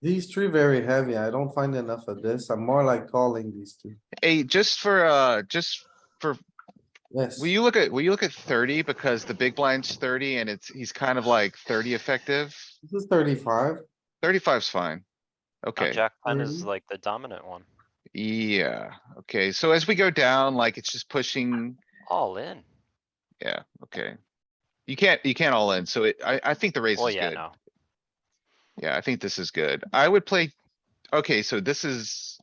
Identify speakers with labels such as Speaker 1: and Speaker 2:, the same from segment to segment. Speaker 1: These three very heavy. I don't find enough of this. I'm more like calling these two.
Speaker 2: Hey, just for, uh, just,
Speaker 1: Yes,
Speaker 2: will you look at, will you look at thirty because the big blind's thirty and it's, he's kind of like thirty effective.
Speaker 1: this is thirty-five.
Speaker 2: Thirty-five's fine. Okay.
Speaker 3: Jack ten is
Speaker 1: Mhm.
Speaker 3: like the dominant one.
Speaker 2: Yeah, okay, so as we go down, like, it's just pushing,
Speaker 3: All in.
Speaker 2: yeah, okay. You can't, you can't all in, so it, I, I think the raise
Speaker 3: Well,
Speaker 2: is
Speaker 3: yeah,
Speaker 2: good.
Speaker 3: no.
Speaker 2: Yeah, I think this is good. I would play, okay, so this is,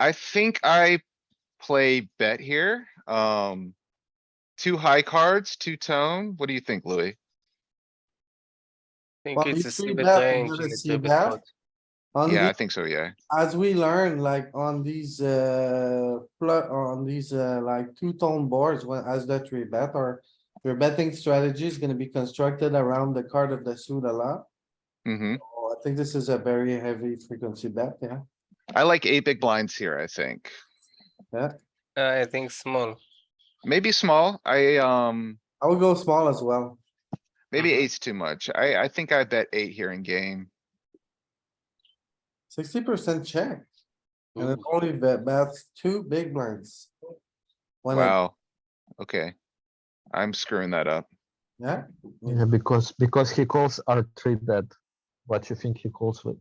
Speaker 2: I think I play bet here, um. Two high cards, two tone. What do you think, Louis?
Speaker 4: think
Speaker 1: Well,
Speaker 4: it's
Speaker 1: you
Speaker 4: a
Speaker 1: see
Speaker 4: stupid
Speaker 1: that,
Speaker 4: range.
Speaker 1: you
Speaker 4: and a
Speaker 1: see
Speaker 4: stupid
Speaker 1: that?
Speaker 4: spot.
Speaker 1: On
Speaker 2: Yeah, I
Speaker 1: the,
Speaker 2: think so, yeah.
Speaker 1: as we learn, like on these, uh, flu- on these, uh, like two-tone boards, when, as that three bet or your betting strategy is gonna be constructed around the card of the suit a lot.
Speaker 2: Mm-hmm.
Speaker 1: Oh, I think this is a very heavy frequency bet, yeah.
Speaker 2: I like eight big blinds here, I think.
Speaker 4: Uh, I think small.
Speaker 2: Maybe small. I, um,
Speaker 1: I would go small as well.
Speaker 2: maybe
Speaker 3: Mhm.
Speaker 2: eight's too much. I, I think I bet eight here in game.
Speaker 1: Sixty percent check. And it
Speaker 4: Ooh.
Speaker 1: only bet, bets two big blinds. One, at-
Speaker 2: Wow. Okay. I'm screwing that up.
Speaker 1: yeah,
Speaker 5: Yeah, because because he calls R three bet. What you think he calls with?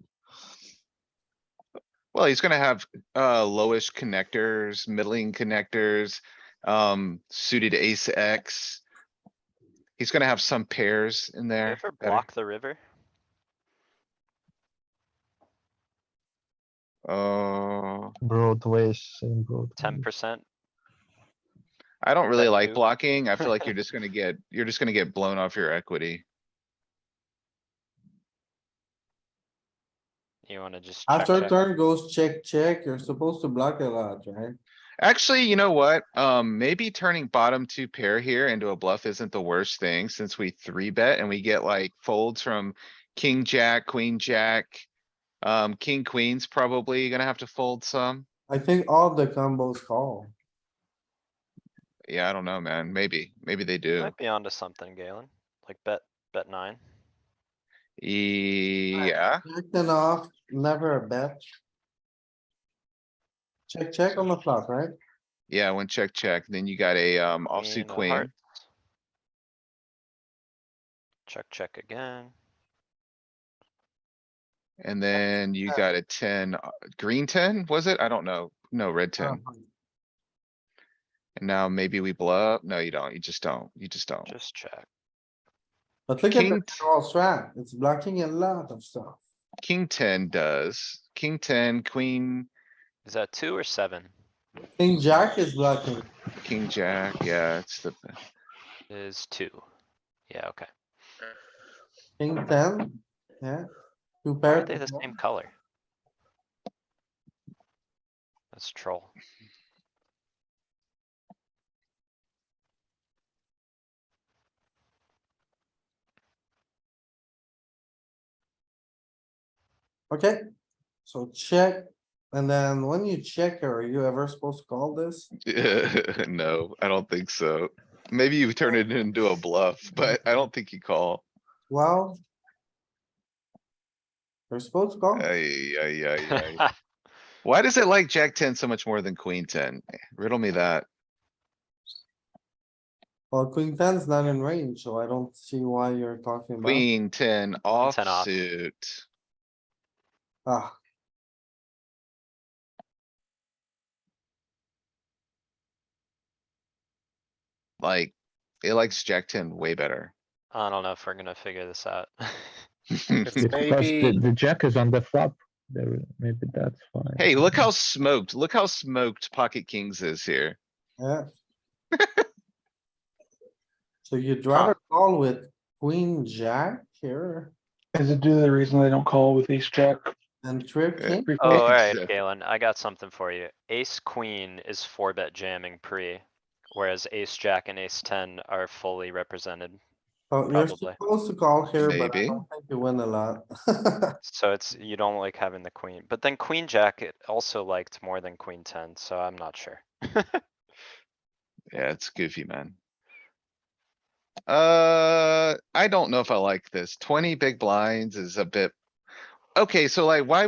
Speaker 2: Well, he's gonna have, uh, lowish connectors, middling connectors, um, suited ace X. He's gonna have some pairs in
Speaker 3: You
Speaker 2: there.
Speaker 3: ever
Speaker 2: that are-
Speaker 3: block the river?
Speaker 2: Oh,
Speaker 5: Broadways in Broadway.
Speaker 3: Ten percent?
Speaker 2: I don't really
Speaker 3: that
Speaker 2: like
Speaker 3: too?
Speaker 2: blocking. I feel like you're just gonna get, you're just gonna get blown off your equity.
Speaker 3: You wanna just check,
Speaker 1: after
Speaker 3: check?
Speaker 1: turn goes check, check, you're supposed to block a lot, right?
Speaker 2: Actually, you know what? Um, maybe turning bottom two pair here into a bluff isn't the worst thing since we three bet and we get like folds from king, jack, queen, jack. Um, king, queens probably gonna have to fold some.
Speaker 1: I think all the combos call.
Speaker 2: Yeah, I don't know, man. Maybe, maybe they
Speaker 3: You
Speaker 2: do.
Speaker 3: Might be onto something, Galen. Like bet, bet nine.
Speaker 2: Yeah,
Speaker 1: Acting off, never a bet. Check, check on the flop, right?
Speaker 2: yeah, when check, check, then you got a, um, offsuit
Speaker 3: of
Speaker 2: queen.
Speaker 3: hearts. Check, check again.
Speaker 2: And then you
Speaker 1: Yeah.
Speaker 2: got a ten, uh, green ten, was it? I don't know. No, red ten.
Speaker 1: Uh-huh.
Speaker 2: And now maybe we bluff. No, you don't. You just don't. You just don't.
Speaker 3: Just check.
Speaker 1: But look at the
Speaker 2: King-
Speaker 1: draw strat, it's blocking a lot of stuff.
Speaker 2: King ten does. King ten, queen,
Speaker 3: Is that two or seven?
Speaker 1: King jack is blocking.
Speaker 2: king jack. Yeah, it's the,
Speaker 3: Is two. Yeah, okay.
Speaker 1: King ten, yeah. Two
Speaker 3: Why
Speaker 1: pair.
Speaker 3: are they the same color? That's troll.
Speaker 1: Okay, so check, and then when you check, are you ever supposed to call this?
Speaker 2: no, I don't think so. Maybe you turn it into a bluff, but I don't think you call.
Speaker 1: Well. You're supposed to call,
Speaker 2: Ay, ay, ay, ay. Why does it like jack ten so much more than queen ten? Riddle me that.
Speaker 1: well, queen ten's not in range, so I don't see why you're talking about.
Speaker 2: Queen ten
Speaker 3: off.
Speaker 2: offsuit.
Speaker 1: Ah,
Speaker 2: Like, it likes jack ten way better.
Speaker 3: I don't know if we're gonna figure this out.
Speaker 4: It's
Speaker 5: Because
Speaker 4: maybe
Speaker 5: the, the jack is on the flop. There, maybe that's why.
Speaker 2: Hey, look how smoked, look how smoked pocket kings is here.
Speaker 1: yeah. So you'd rather
Speaker 2: Ah.
Speaker 1: call with queen, jack here
Speaker 6: Is it due to the reason they don't call with ace jack?
Speaker 1: and trip
Speaker 2: Yeah.
Speaker 1: king?
Speaker 3: Oh,
Speaker 2: It's, uh,
Speaker 3: alright, Galen, I got something for you. Ace queen is four bet jamming pre, whereas ace jack and ace ten are fully represented.
Speaker 1: Oh, you're
Speaker 3: probably.
Speaker 1: supposed to call here, but I
Speaker 2: Maybe.
Speaker 1: don't think you win a lot.
Speaker 3: So it's, you don't like having the queen, but then queen jack it also liked more than queen ten, so I'm not sure.
Speaker 2: Yeah, it's goofy, man. Uh, I don't know if I like this. Twenty big blinds is a bit. okay, so like, why